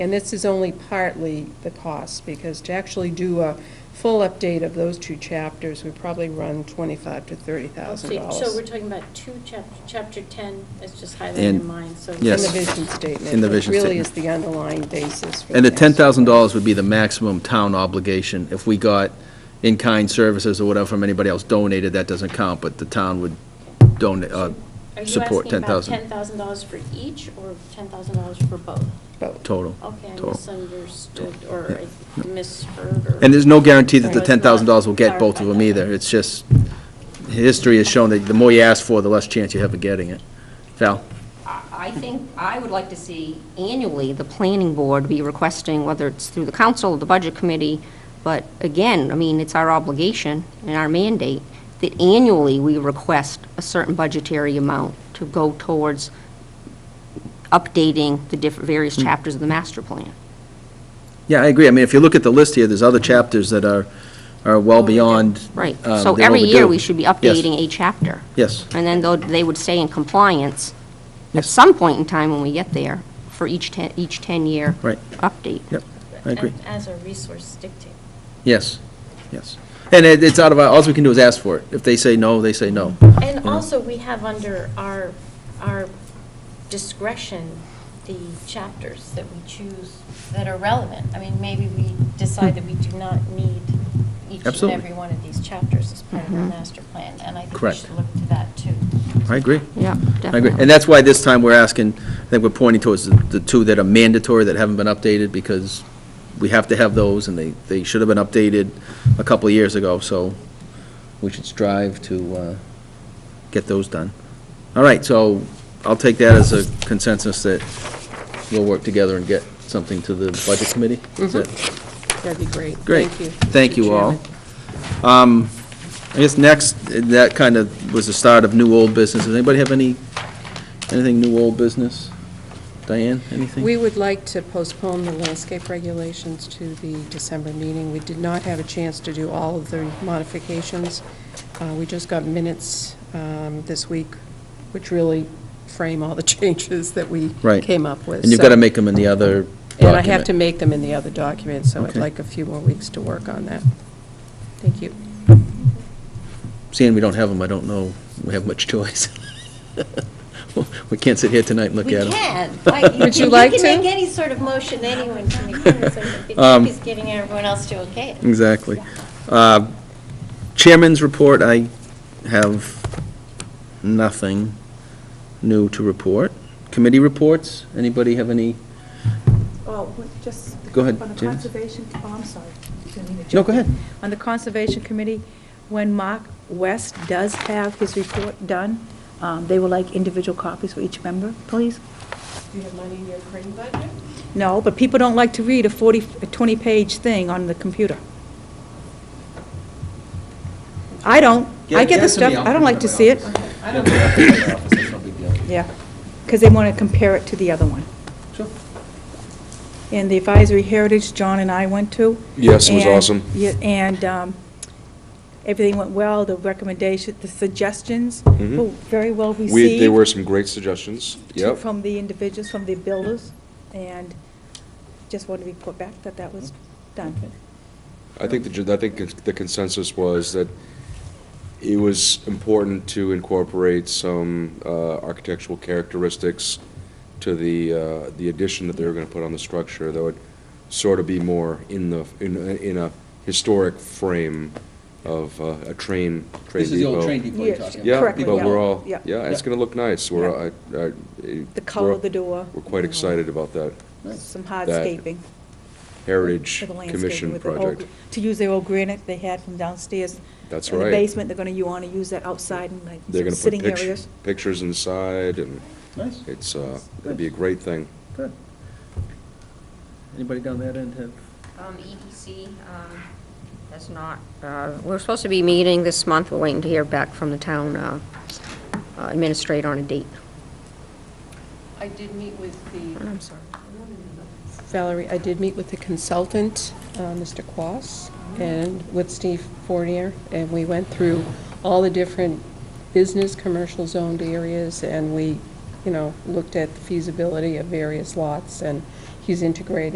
And this is only partly the cost, because to actually do a full update of those two chapters would probably run twenty-five to thirty thousand So dollars. so we're talking about two, chap- chapter 10, that's just highlighted in And- mine, so. yes. In the vision statement. In the which vision Really statement. is the underlying basis for. And the tax. ten thousand dollars would be the maximum town obligation. If we got in-kind services or whatever from anybody else donated, that doesn't count, but the town would donate, uh, Are you support asking ten about thousand $10,000 for each or $10,000 for both? But- total. Okay, I total. misunderstood or Yeah. I misheard or. And there's no guarantee that the Right. ten thousand dollars will get both of them either. It's just, history has shown that the more you ask for, the less chance you have of getting it. Val? I I think, I would like to see annually the planning board be requesting, whether it's through the council or the budget committee, but again, I mean, it's our obligation and our mandate that annually we request a certain budgetary amount to go towards updating the different, various Hmm. chapters of the master plan. Yeah, I agree. I mean, if you look at the list here, there's other chapters that are, are well beyond. Right. um, So than what every year, do. we should be Yes, updating a chapter. Yes. And then though they would stay in compliance at Yes. some point in time when we get there for each 10, each 10-year Right. update. Yep, I agree. As a resource dictate. Yes, yes. And it, it's out of, our all we can do is ask for it. If they say no, they say no. And Yeah. also, we have under our, our discretion, the chapters that we choose that are relevant. I mean, maybe we decide that we do not need each and Absolutely. every one of these chapters as part of our Mm-hmm. Mhm. master plan, and I think we Correct. should look to that, too. I agree. Yeah, I agree. definitely. And that's why this time we're asking, I think we're pointing towards the- the two that are mandatory that haven't been updated because we have to have those and they, they should have been updated a couple of years ago, so we should strive to, uh, get those done. All right, so I'll take that as a consensus that we'll work together and get something to the budget committee. Is that- That'd be great. Great. Thank you. Thank you Mr. all. Chairman. Um, I guess next, that kind of was the start of new old business. Does anybody have any, anything new old business? Diane, anything? We would like to postpone the landscape regulations to the December meeting. We did not have a chance to do all of the modifications. Uh, We just got minutes um, this week, which really frame all the changes that we Right. came up with. And you've got to So- make them in the other And I have to document. make them in the other document, so I'd Okay. like a few more weeks to work on that. Thank you. Seeing we don't have them, I don't know, we have much choice. We can't sit here tonight and look We at them. can. Like, Would you like We to? can make any sort of motion anyone can make. It's like, I Um, think He's getting everyone else to okay it. Exactly. Uh, Chairman's report, I have nothing new to report. Committee reports, anybody have any? Well, we- Oh, just. Go ahead, On the James. Conservation, oh, I'm sorry. Didn't mean to No, jump go in. ahead. On the Conservation Committee, when Mark West does have his report done, um, they will like individual copies for each member, please. Do you have money in your printing budget? No, but people don't like to read a 40, a 20-page thing on the computer. I don't. I get the stuff, I don't like to see it. I don't it's no big deal. Yeah, because they want to compare it to the other one. Sure. And the Advisory Heritage, John and I went to. Yes, it was and- awesome. yeah, And um, everything went well, the recommendation, the suggestions Mhm. were very well received. We, there were some great suggestions, to- yep. From the individuals, from the builders, and just wanted to report back that that was done. I think the, gen- I think the consensus was that it was important to incorporate some uh, architectural characteristics to the, uh, the addition that they were going to put on the structure, though it sort of be more in the, in, a- in a historic frame of uh, a train, train depot. This is the old train depot you're Yes, talking about. Yeah, Correctly, but yeah. we're all, Yeah. yeah, it's going to look nice. We're, I, I. The color of the door. Mm-hmm. We're quite excited about that Some That- hardscaping. Heritage for the landscaping Commission with the old- project. To use their old granite they had from downstairs. That's In the right. basement, they're going to, you want to use that outside and like some They're going to put sitting pictures, areas. pictures inside, and Nice. it's, uh, it'd be a great thing. Good. Anybody down that end have? Um, EDC, um, has not, uh, we're supposed to be meeting this month, we're waiting to hear back from the town, uh, uh, administrator on a date. I did meet with the, I'm sorry. Oh, Valerie, I did meet with the consultant, uh, Mr. Quas, and with Steve Fournier, and we went through all the different business, commercial zoned areas, and we, you know, looked at the feasibility of various lots, and he's integrated